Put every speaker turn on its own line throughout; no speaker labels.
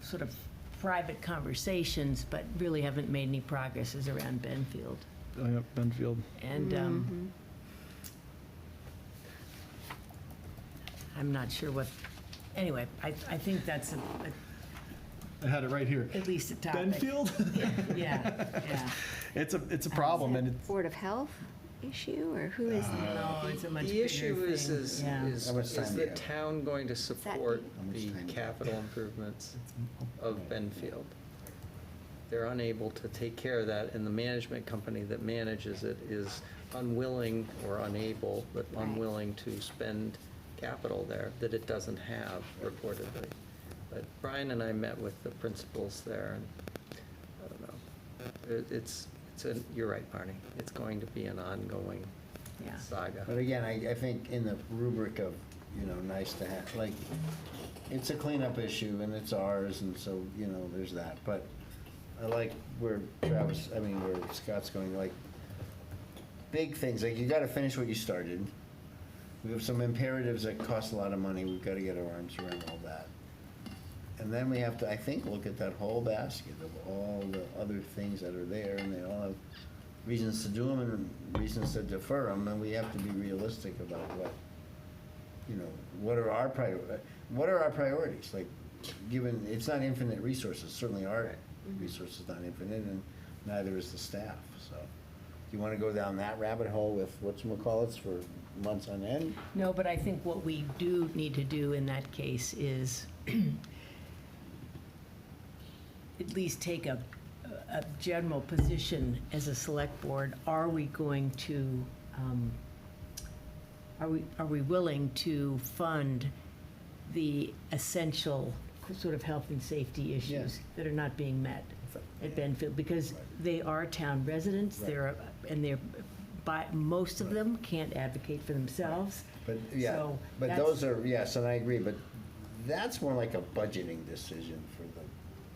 sort of private conversations, but really haven't made any progresses around Benfield.
Oh, yeah, Benfield.
And
Mm-hmm.
um, I'm not sure what, anyway, I, I think that's a- a-
I had it right here.
Ah,
at least a topic.
Benfield?
Yeah, yeah.
It's a, it's a problem and it's, Uh,
Board of Health issue, or who is that?
No, Oh, it's a much
The
bigger
issue is,
thing.
is,
Yeah.
is
How much
is
time do
the
you have?
town going to support
How much time
the
do you have?
capital improvements of Benfield? They're unable to take care of that, and the management company that manages it is unwilling or unable, but
Right.
unwilling to spend capital there that it doesn't have reportedly. But Brian and I met with the principals there, and I don't know. It- It's, it's, an- you're right, Barney. It's going to be an ongoing
Yeah.
saga.
But again, I, I think in the rubric of, you know, nice to have, like, it's a cleanup issue and it's ours and so, you know, there's that. But I like where Travis, I mean, where Scott's going, like, big things, like you gotta finish what you started. We have some imperatives that cost a lot of money, we've gotta get our arms around all that. And then we have to, I think, look at that whole basket of all the other things that are there, and they all have reasons to do them and reasons to defer them, and we have to be realistic about what, you know, what are our prior, what are our priorities? Like, given, it's not infinite resources, certainly our resources not infinite, and neither is the staff, so. Do you wanna go down that rabbit hole with whatchamacallits for months on end?
No, but I think what we do need to do in that case is at least take a, a general position as a select board. Are we going to, um, are we, are we willing to fund the essential sort of health and safety issues that are not being met at Benfield? Because they are town residents, they're, and they're, by, most of them can't advocate for themselves.
But, yeah,
So
but
that's-
those are, yes, and I agree, but that's more like a budgeting decision for the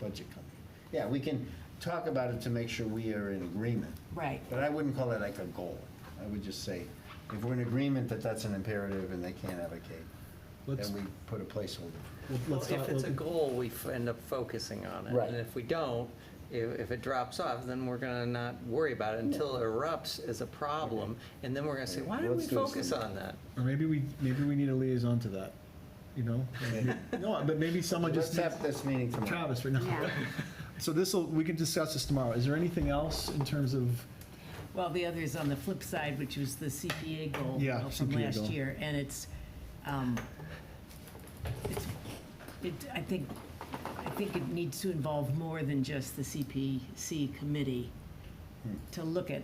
budget company. Yeah, we can talk about it to make sure we are in agreement,
Right.
but I wouldn't call it like a goal. I would just say, if we're in agreement that that's an imperative and they can't advocate,
Let's-
then we put a placeholder.
Well,
let's
if
not-
it's a
let-
goal, we f- end up focusing on it.
Right.
And if we don't, if, if it drops off, then we're gonna not worry about it until it erupts as a problem. And then we're gonna say, why didn't we
Let's do this
focus
thing.
on that?
Or maybe we, maybe we need a liaison to that, you know? No, but maybe someone
Let's
just,
have this meeting tomorrow.
Travis, right now.
Yeah.
So this'll, we can discuss this tomorrow. Is there anything else in terms of,
Well, the other is on the flip side, which was the CPA goal
Yeah,
uh, from
CPA
last
goal.
year, and it's, um, it's- it, I think, I think it needs to involve more than just the CPC committee
Hmm.
to look at,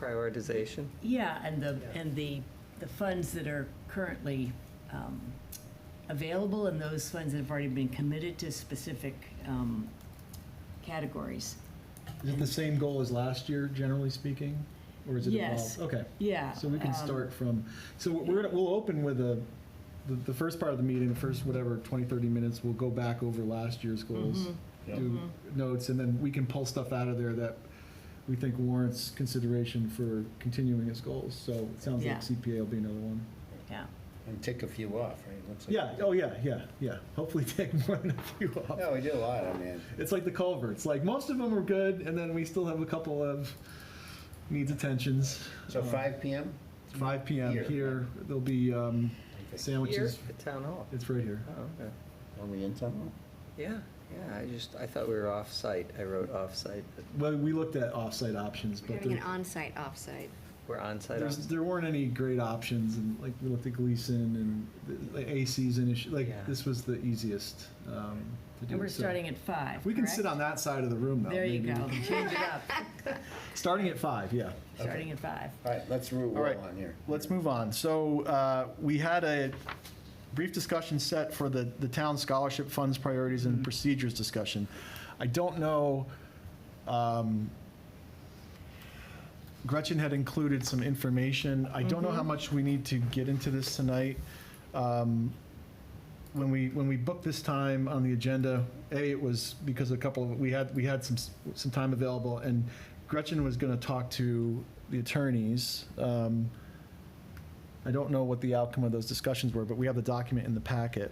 Prioritization.
yeah, and the, and the, the funds that are currently um, available and those funds that have already been committed to specific um, categories.
is it the same goal as last year, generally speaking? Or is it evolved?
Yes.
Okay.
Yeah.
So we can
um,
start from, so we're gonna, we'll open with a, the, the first part of the meeting, first whatever, 20, 30 minutes, we'll go back over last year's goals,
Mm-hmm.
do notes, and then we can pull stuff out of there that we think warrants consideration for continuing as goals. So it sounds
Yeah.
like CPA will be another one.
Yeah.
And tick a few off, right? Looks like-
Yeah, oh yeah, yeah, yeah. Hopefully take more than a few off.
No, we did a lot, I mean,
It's like the culverts, like most of them are good, and then we still have a couple of needs Um, attentions.
so five PM?
5 p.m.
Here.
here. There'll be um, sandwiches.
At Town Hall.
It's right here.
Oh, okay.
Are we in tomorrow?
Yeah, yeah, I just, I thought we were off-site. I wrote off-site, but
Well, we looked at off-site options,
We're
but
having
there,
an on-site, off-site.
we're on-site.
there's,
off-
there weren't any great options, and like we looked at Gleason and the, the AC's an issue. Like
Yeah.
this was the easiest um, to do.
And we're
so-
starting at five,
We can sit
correct?
on that side of the room though.
There you
maybe.
go. Change it up.
Starting at five, yeah.
starting at five.
All right, let's root
All
well
right,
on here.
let's move on. So uh, we had a brief discussion set for the, the town scholarship funds priorities and procedures discussion. I don't know, um, Gretchen had included some information. I don't know how much we need to get into this tonight. Um, When we, when we booked this time on the agenda, A, it was because a couple, of we had, we had some, s- some time available, and Gretchen was going to talk to the attorneys. Um, I don't know what the outcome of those discussions were, but we have the document in the packet.